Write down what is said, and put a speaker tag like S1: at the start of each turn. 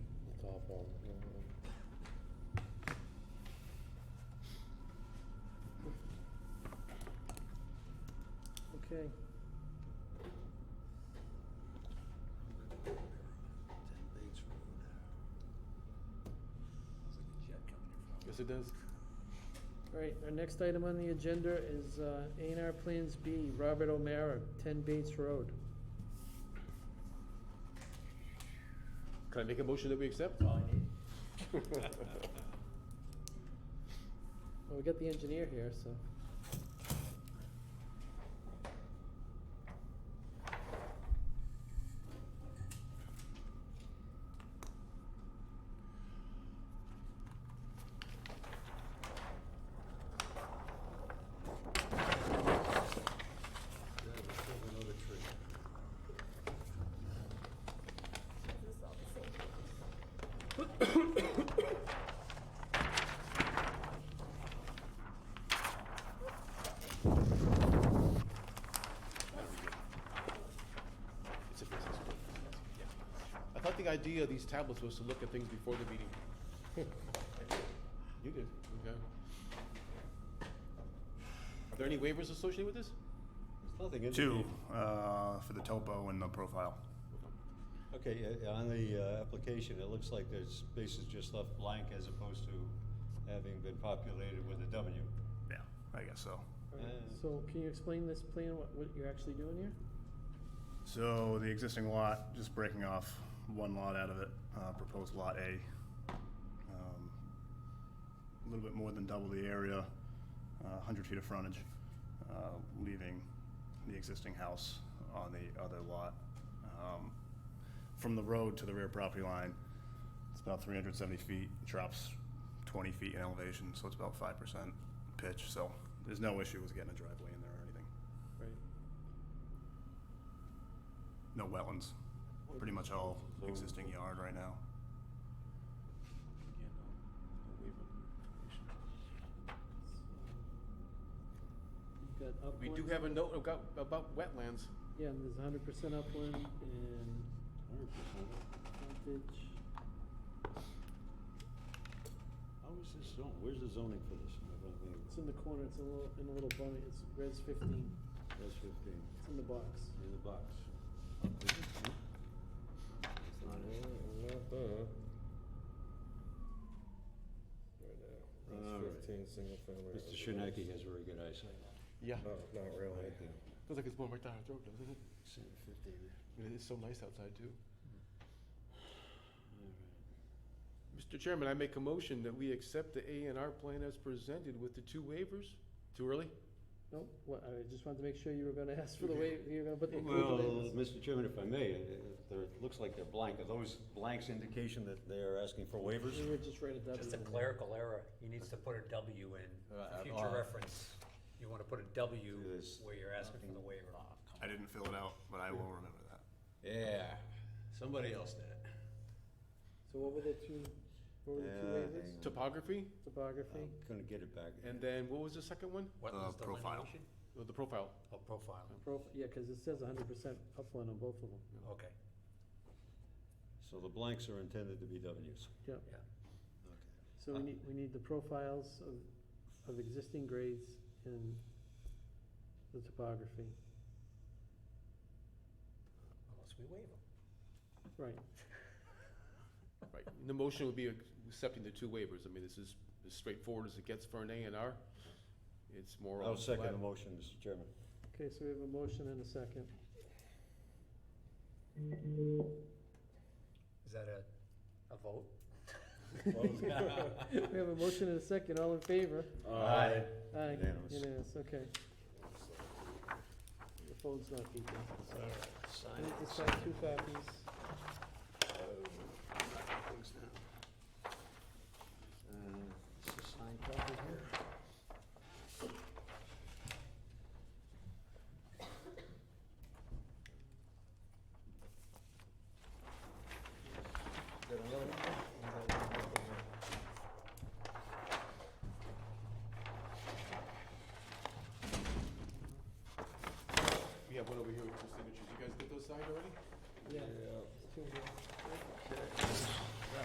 S1: well, you know.
S2: Okay.
S3: Ten Bates Road. It's like a jet coming in
S4: Yes,
S3: from.
S4: it does.
S2: All right, our next item on the agenda is uh, A and R Plans B, Robert O'Mara, 10 Bates Road.
S4: Can I make a motion that we accept?
S3: All I need.
S2: Well, we got the engineer here, so.
S3: Yeah, we killed another tree.
S5: This is all the same.
S4: It's a business. book. Yeah. I thought the idea of these tablets was to look at things before the meeting. You did, okay. Are there any waivers associated with this?
S3: There's nothing in.
S6: Two, uh, for the topo and the profile.
S3: Okay, yeah, on the uh, application, it looks like there's spaces just left blank as opposed to having been populated with a W.
S6: Yeah, I guess so.
S2: All right,
S3: Uh,
S2: So can you explain this plan, what, what you're actually doing here?
S6: So the existing lot, just breaking off one lot out of it, uh, proposed lot A. Um, A little bit more than double the area, uh, hundred feet of frontage, uh, leaving the existing house on the other lot. Um, From the road to the rear property line, it's about three hundred seventy feet, drops twenty feet in elevation, so it's about five percent pitch, so there's no issue with getting a driveway in there or anything.
S2: Right.
S6: No wetlands. Pretty much all existing yard right now.
S4: Yeah, no, no waiver.
S2: You've got
S4: We do
S2: upland.
S4: have a note about, about wetlands.
S2: Yeah, and there's hundred percent upland and frontage.
S3: How is this zone, where's the zoning for this? I don't think
S2: It's in the corner, it's a little, in a little bunny, it's res fifteen,
S3: That's fifteen,
S2: it's in the box.
S3: in the box. It's not in. All
S1: Right now,
S3: right.
S1: it's fifteen single family.
S3: Mr. Shinaki has very good eyesight.
S4: Yeah.
S1: No,
S6: Oh.
S1: not really.
S3: Right there.
S4: Feels like it's going right down our throat, doesn't it?
S3: Seven fifteen.
S4: And It's so nice outside too.
S3: All right.
S4: Mr. Chairman, I make a motion that we accept the A and R plan as presented with the two waivers. Too early?
S2: Nope, what, I just wanted to make sure you were gonna ask for the way, you were gonna put the approval
S3: Well,
S2: in.
S3: Mr. Chairman, if I may, uh, there, it looks like they're blank. Are those blanks indication that they're asking for waivers?
S2: We were just right at that.
S7: Just a clerical error, he needs to put a W in,
S3: Uh, uh,
S7: for
S3: uh,
S7: future reference, you wanna put a W
S3: There's
S7: where you're asking for the waiver.
S3: Uh,
S6: I didn't fill it out, but I will remember that.
S3: Yeah, somebody else did it.
S2: So what were the two, what were the two
S3: Yeah, Um,
S2: waivers?
S3: hang
S4: Topography,
S2: Topography?
S3: I'm gonna get it back.
S4: and then what was the second one?
S7: Wetlands
S6: Uh, profile.
S7: delineation?
S4: Oh, The profile.
S7: Oh, profile,
S3: um,
S2: Prof, yeah, cause it says hundred percent upland on both of them,
S7: okay,
S3: So the blanks are intended to be Ws.
S2: yeah.
S7: yeah.
S2: So
S3: Uh,
S2: we need, we need the profiles of, of existing grades and the topography,
S7: Unless we waive them.
S2: right.
S4: Right, And the motion would be accepting the two waivers. I mean, this is as straightforward as it gets for an A and R. It's more.
S3: I'll
S4: on
S3: second
S4: flat.
S3: the motion, Mr. Chairman.
S2: Okay, so we have a motion and a second.
S7: Is that a, a vote?
S2: We have a motion and a second, all in favor?
S3: Aye.
S2: Aye,
S3: Unanimous.
S2: unanimous, okay. The phone's not beeping, so I need to sign two copies.
S3: Uh,
S4: We have one over here with two signatures. You guys get those signed already?